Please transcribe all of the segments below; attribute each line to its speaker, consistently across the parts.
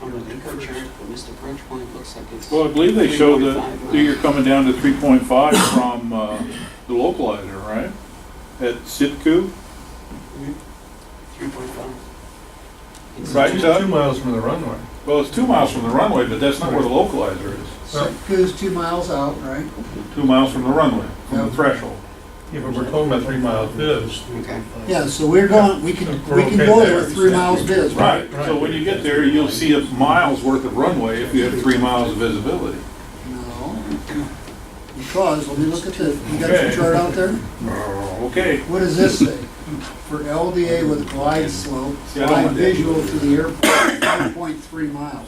Speaker 1: on the Lincoln chart for Mr. Bridgepoint, looks like it's.
Speaker 2: Well, I believe they show
Speaker 1: 3.5
Speaker 2: that you're coming down to 3.5 from uh, the localizer, right? At Sitku?
Speaker 1: Three point five. It's
Speaker 2: Right,
Speaker 1: two-
Speaker 2: Doug?
Speaker 3: Two miles from the runway.
Speaker 2: Well, it's two miles from the runway, but that's not where the localizer is.
Speaker 4: So it goes two miles out, right?
Speaker 2: Two miles from the runway, from the
Speaker 4: Yeah.
Speaker 2: threshold.
Speaker 3: Yeah, but we're talking about three mile bids.
Speaker 1: Okay.
Speaker 4: Yeah, so we're going, we can, we can go there with three miles bids, right?
Speaker 2: Right, so when you get there, you'll see a mile's worth of runway if you have three miles of visibility.
Speaker 4: No, because, let me look at the, you got your
Speaker 2: Okay.
Speaker 4: chart out there? Oh.
Speaker 2: Okay,
Speaker 4: What does this say? For LDA with glide slope,
Speaker 2: See, I don't
Speaker 4: glide
Speaker 2: want that.
Speaker 4: visual to the airport, one point three miles.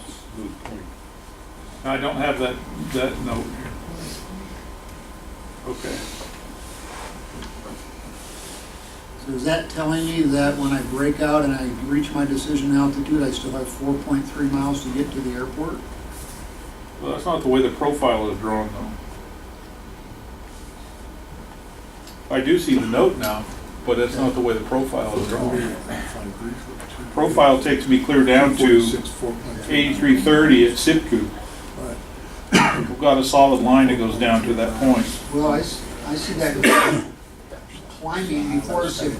Speaker 2: I don't have that, that note here. Okay.
Speaker 4: So is that telling me that when I break out and I reach my decision altitude, I still have four point three miles to get to the airport?
Speaker 2: Well, that's not the way the profile is drawn, though. I do see the note now, but that's not the way the profile is drawn. Profile takes me clear down to eighty-three thirty at Sipku. We've got a solid line that goes down to that point.
Speaker 4: Well, I, s- I see that climbing before it's, right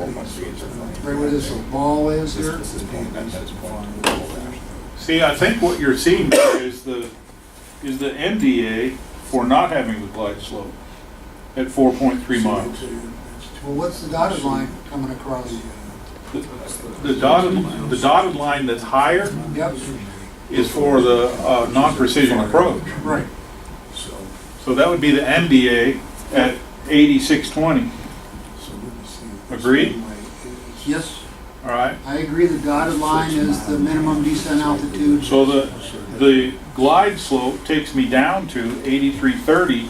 Speaker 4: where this little ball is here.
Speaker 2: See, I think what you're seeing there is the, is the MDA for not having the glide slope at four point three miles.
Speaker 4: Well, what's the dotted line coming across?
Speaker 2: The dotted, the dotted line that's higher
Speaker 4: Yep,
Speaker 2: is for the uh, non-precision approach.
Speaker 4: right.
Speaker 2: So that would be the MDA at 8620, Agreed?
Speaker 4: Yes,
Speaker 2: all right?
Speaker 4: I agree the dotted line is the minimum descent altitude.
Speaker 2: So the, the glide slope takes me down to 8330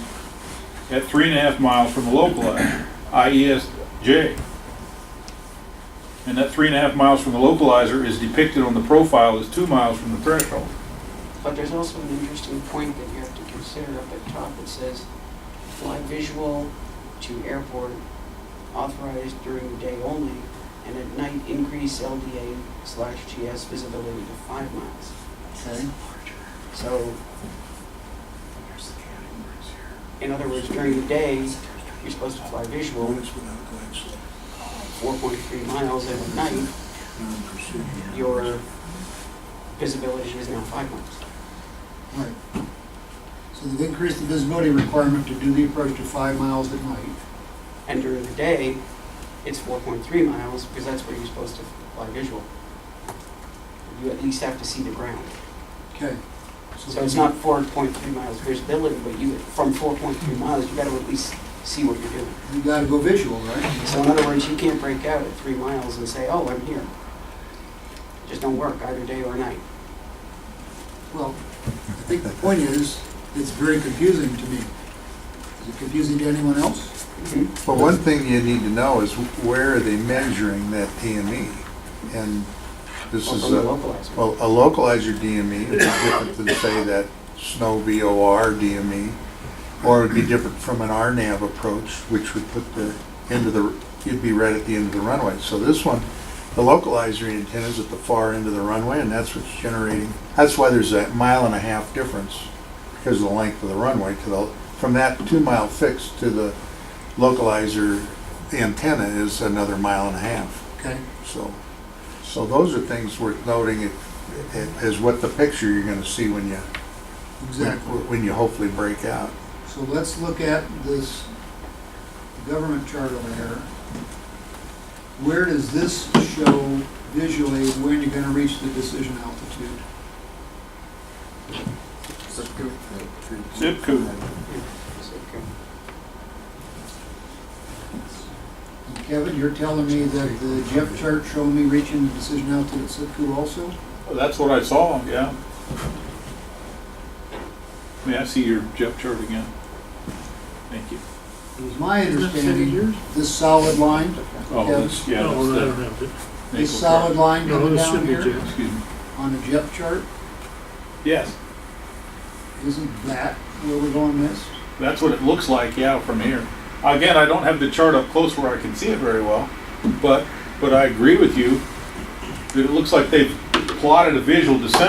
Speaker 2: at three and a half miles from the localizer, IESJ. E And that three and a half miles from the localizer is depicted on the profile as two miles from the threshold.
Speaker 1: But there's also an interesting point that you have to consider up at top. It says, fly visual to airport authorized during the day only, and at night increase LDA slash GS visibility to five miles.
Speaker 4: Okay.
Speaker 1: So, in other words, during the day, you're supposed to fly visual four point three miles, and at night, your visibility is now five miles.
Speaker 4: Right. So they've increased the visibility requirement to do the approach to five miles at night.
Speaker 1: And during the day, it's four point three miles, because that's where you're supposed to fly visual. You at least have to see the ground.
Speaker 4: Okay.
Speaker 1: So it's not four point three miles visibility, but you, from four point three miles, you gotta at least see what you're doing.
Speaker 4: You gotta go visual, right?
Speaker 1: So in other words, you can't break out at three miles and say, oh, I'm here. It Just don't work either day or night.
Speaker 4: Well, I think the point is, it's very confusing to me. Is it confusing to anyone else?
Speaker 5: Well, one thing you need to know is where are they measuring that DME? And this
Speaker 1: Or
Speaker 5: is
Speaker 1: from the
Speaker 5: a,
Speaker 1: localizer.
Speaker 5: well, a localizer DME would be different than say that snow VOR DME, E. or it'd be different from an RNAV approach, which would put the end of the, it'd be right at the end of the runway. So this one, the localizer antenna is at the far end of the runway, and that's what's generating, that's why there's that mile and a half difference, because of the length of the runway to the, from that two-mile fix to the localizer antenna is another mile and a half.
Speaker 4: Okay.
Speaker 5: So, so those are things worth noting it- it- Is what the picture you're gonna see when you,
Speaker 4: Exactly.
Speaker 5: when you hopefully break out.
Speaker 4: So let's look at this government chart over here. Where does this show visually when you're gonna reach the decision altitude?
Speaker 2: Zip code.
Speaker 1: It's okay.
Speaker 4: Kevin, you're telling me that the Jeff chart showed me reaching the decision altitude at Sitku also?
Speaker 2: That's what I saw, yeah. May I see your jet chart again? Thank you.
Speaker 4: It was my understanding, this solid line,
Speaker 2: Oh, that's, yeah, that's the.
Speaker 4: this
Speaker 2: Naval chart.
Speaker 4: solid line coming down here
Speaker 2: Excuse me.
Speaker 4: on the Jeff chart,
Speaker 2: Yes,
Speaker 4: isn't that where we're going this?
Speaker 2: that's what it looks like, yeah, from here. Again, I don't have the chart up close where I can see it very well, but, but I agree with you that it looks like they've plotted a visual descent